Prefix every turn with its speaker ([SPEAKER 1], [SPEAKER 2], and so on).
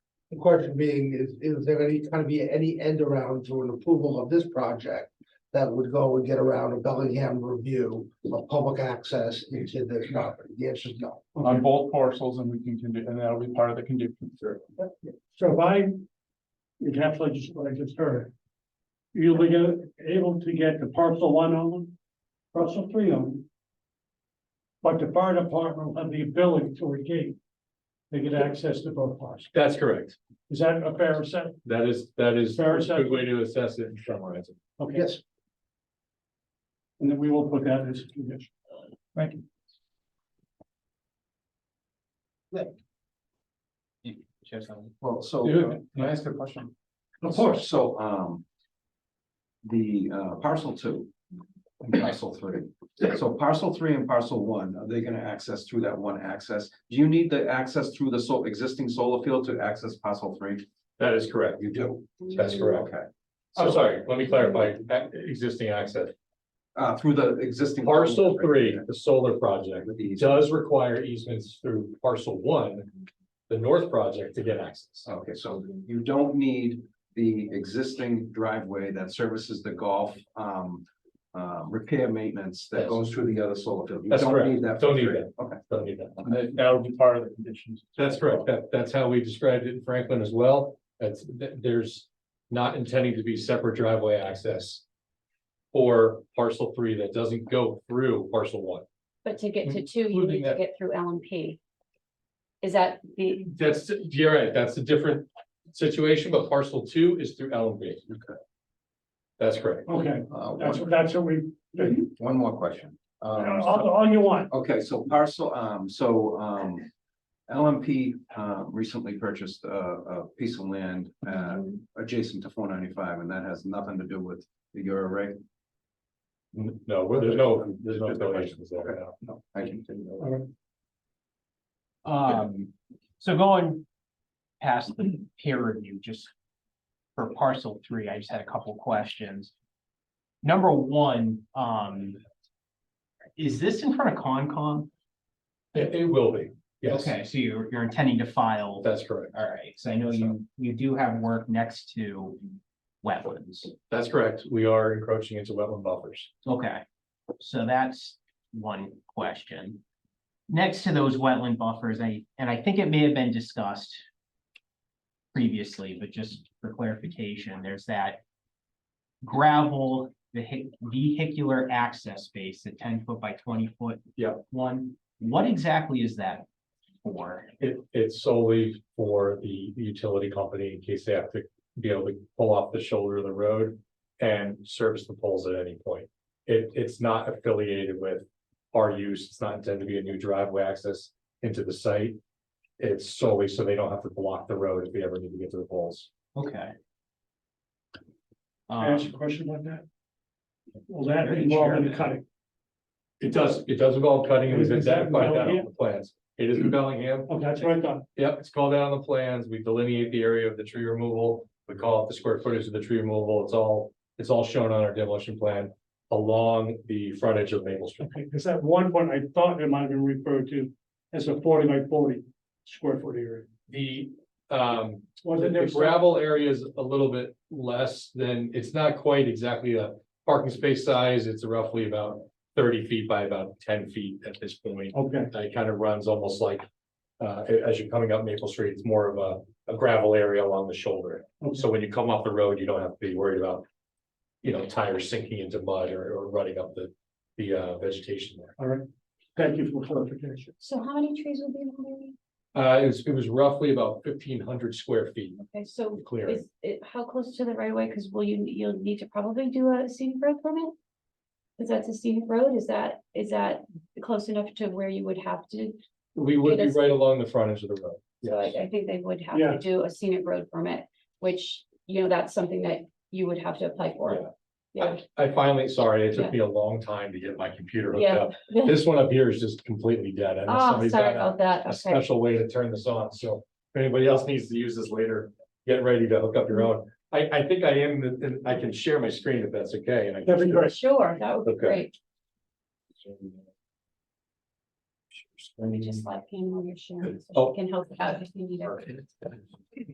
[SPEAKER 1] The question being, is, is there any, gonna be any end around to an approval of this project? That would go and get around a Bellingham review of public access into this property? The answer is no.
[SPEAKER 2] on both parcels and we can, condi- and that'll be part of the condition.
[SPEAKER 3] So if I encapsulate just what I just heard. You'll be get- able to get the parcel one owned, parcel three owned. But the fire department will have the ability to engage. They get access to both parts.
[SPEAKER 4] That's correct.
[SPEAKER 3] Is that a fair assessment?
[SPEAKER 4] That is, that is
[SPEAKER 3] Fair
[SPEAKER 4] a
[SPEAKER 3] assessment.
[SPEAKER 4] good way to assess it and summarize it.
[SPEAKER 3] Okay.
[SPEAKER 1] Yes,
[SPEAKER 3] And then we will put that as a condition. Thank you.
[SPEAKER 5] Well, so, uh,
[SPEAKER 2] Dude, Can I ask a question?
[SPEAKER 5] of course, so, um. The, uh, parcel two. And parcel three, so parcel three and parcel one, are they gonna access through that one access? Do you need the access through the so, existing solar field to access parcel three?
[SPEAKER 4] That is correct.
[SPEAKER 5] You do,
[SPEAKER 4] That's correct.
[SPEAKER 5] okay,
[SPEAKER 4] I'm sorry, let me clarify, Ac- existing access.
[SPEAKER 5] uh, through the existing.
[SPEAKER 4] Parcel three, the solar project,
[SPEAKER 5] With these,
[SPEAKER 4] does require easements through parcel one, the north project to get access.
[SPEAKER 5] okay, so you don't need the existing driveway that services the golf, um. Uh, repair maintenance that
[SPEAKER 4] Yes.
[SPEAKER 5] goes through the other solar field. You
[SPEAKER 4] That's
[SPEAKER 5] don't
[SPEAKER 4] correct.
[SPEAKER 5] need that. for
[SPEAKER 4] Don't need
[SPEAKER 5] three.
[SPEAKER 4] that.
[SPEAKER 5] Okay.
[SPEAKER 4] Don't need that.
[SPEAKER 2] And that- That'll be part of the conditions.
[SPEAKER 4] That's correct. That, that's how we described it in Franklin as well. That's, th- there's not intending to be separate driveway access. Or parcel three that doesn't go through parcel one.
[SPEAKER 6] But to get to two, you
[SPEAKER 4] Including
[SPEAKER 6] need to
[SPEAKER 4] that-
[SPEAKER 6] get through LMP. Is that the,
[SPEAKER 4] That's, you're right, that's a different situation, but parcel two is through LMB.
[SPEAKER 5] Okay.
[SPEAKER 4] That's correct.
[SPEAKER 3] Okay,
[SPEAKER 5] Uh,
[SPEAKER 3] that's,
[SPEAKER 5] one,
[SPEAKER 3] that's what we,
[SPEAKER 5] one more question. Um,
[SPEAKER 3] all, all you want.
[SPEAKER 5] Okay, so parcel, um, so, um, LMP, uh, recently purchased a, a piece of land, uh, adjacent to four ninety-five, and that has nothing to do with the Euro reg.
[SPEAKER 4] No, well, there's no, there's no donations there now.
[SPEAKER 5] No. I can,
[SPEAKER 7] Um, so going past the peer review, just for parcel three, I just had a couple questions. Number one, um, is this in front of Concom?
[SPEAKER 4] It, it will be, yes,
[SPEAKER 7] Okay, so you're, you're intending to file,
[SPEAKER 4] that's correct.
[SPEAKER 7] all right, so I know you, you do have work next to wetlands.
[SPEAKER 4] That's correct. We are encroaching into wetland buffers.
[SPEAKER 7] Okay, so that's one question. Next to those wetland buffers, I, and I think it may have been discussed previously, but just for clarification, there's that gravel vehi- vehicular access space, the ten foot by twenty foot.
[SPEAKER 4] Yeah.
[SPEAKER 7] One, what exactly is that for?
[SPEAKER 4] It, it's solely for the utility company in case they have to be able to pull off the shoulder of the road and service the poles at any point. It, it's not affiliated with our use. It's not intended to be a new driveway access into the site. It's solely so they don't have to block the road if they ever need to get to the poles.
[SPEAKER 7] Okay.
[SPEAKER 3] Can I ask
[SPEAKER 7] Um,
[SPEAKER 3] you a question about that? Will that involve in cutting?
[SPEAKER 4] It does, it does involve cutting. It was
[SPEAKER 3] Is that
[SPEAKER 4] identified that on
[SPEAKER 3] Bellingham?
[SPEAKER 4] the plans. It is in Bellingham.
[SPEAKER 3] Okay, that's what I thought.
[SPEAKER 4] Yep, it's called out on the plans. We delineate the area of the tree removal. We call it the square footage of the tree removal. It's all, it's all shown on our demolition plan along the frontage of Maple Street.
[SPEAKER 3] Okay, because at one point I thought it might have been referred to as a forty by forty square foot area.
[SPEAKER 4] The, um,
[SPEAKER 3] Was
[SPEAKER 4] the
[SPEAKER 3] it
[SPEAKER 4] the
[SPEAKER 3] next?
[SPEAKER 4] gravel area is a little bit less than, it's not quite exactly a parking space size. It's roughly about thirty feet by about ten feet at this point.
[SPEAKER 3] Okay,
[SPEAKER 4] Uh, It kind of runs almost like, uh, a- as you're coming up Maple Street, it's more of a, a gravel area along the shoulder. So when you come off the road, you don't have to be worried about, you know, tires sinking into mud or, or running up the, the, uh, vegetation there.
[SPEAKER 3] all right. Thank you for clarification.
[SPEAKER 6] so how many trees will be in the area?
[SPEAKER 4] Uh, it was, it was roughly about fifteen hundred square feet
[SPEAKER 6] Okay, so
[SPEAKER 4] clearing.
[SPEAKER 6] is it, how close to the right of way? Because will you, you'll need to probably do a scenic road permit? Because that's a scenic road. Is that, is that close enough to where you would have to?
[SPEAKER 4] We would be right along the front edge of the road.
[SPEAKER 6] So I, I think they would have
[SPEAKER 3] Yeah.
[SPEAKER 6] to do a scenic road permit, which, you know, that's something that you would have to apply for. Yeah.
[SPEAKER 4] I- I finally, sorry, it
[SPEAKER 6] Yeah.
[SPEAKER 4] took me a long time to get my computer hooked
[SPEAKER 6] Yeah.
[SPEAKER 4] up. This one up here is just completely dead. I know
[SPEAKER 6] Oh,
[SPEAKER 4] somebody's got
[SPEAKER 6] sorry
[SPEAKER 4] a-
[SPEAKER 6] about that.
[SPEAKER 4] a
[SPEAKER 6] Okay.
[SPEAKER 4] special way to turn this on, so if anybody else needs to use this later, get ready to hook up your own. I, I think I am, and I can share my screen if that's okay, and I.
[SPEAKER 3] That'd be
[SPEAKER 4] can
[SPEAKER 3] great.
[SPEAKER 6] Sure, that would be
[SPEAKER 4] Okay.
[SPEAKER 6] great.
[SPEAKER 4] share my
[SPEAKER 6] Just
[SPEAKER 4] screen.
[SPEAKER 6] like, you know, you're sharing, so
[SPEAKER 4] Oh.
[SPEAKER 6] she can help out if you need it.
[SPEAKER 4] Perfect.